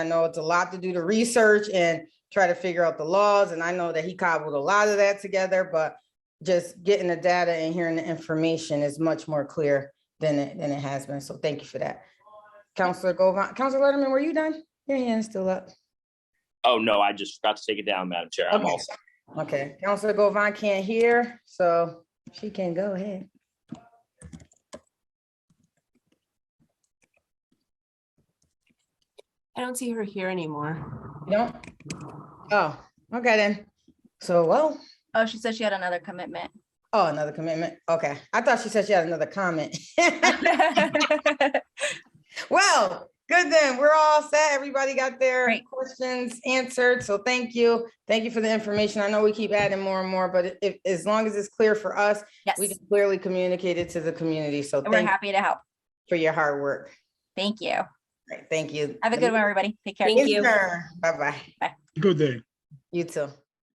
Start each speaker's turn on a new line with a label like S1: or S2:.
S1: I know it's a lot to do the research and try to figure out the laws. And I know that he cobbled a lot of that together, but just getting the data and hearing the information is much more clear than it, than it has been. So thank you for that. Counselor Govan, Counselor Letterman, were you done? Your hand's still up.
S2: Oh, no, I just forgot to take it down, Madam Chair. I'm
S1: Okay.
S2: all set.
S1: Okay, Counselor Govan can't hear, so she can go ahead.
S3: I don't see her here anymore.
S1: You don't? Oh, okay then. So, well,
S4: Oh, she said she had another commitment.
S1: oh, another commitment. Okay, I thought she said she had another comment. Well, good then. We're all set. Everybody got their
S4: Great.
S1: questions answered. So thank you. Thank you for the information. I know we keep adding more and more, but if, as long as it's clear for us,
S4: Yes,
S1: we can clearly communicate it to the community. So
S4: and we're
S1: thank you
S4: happy to help.
S1: for your hard work.
S4: Thank you.
S1: Right, thank you.
S4: Have a good one, everybody. Take care.
S3: Thank you.
S1: Bye bye.
S5: Good day.
S1: You too.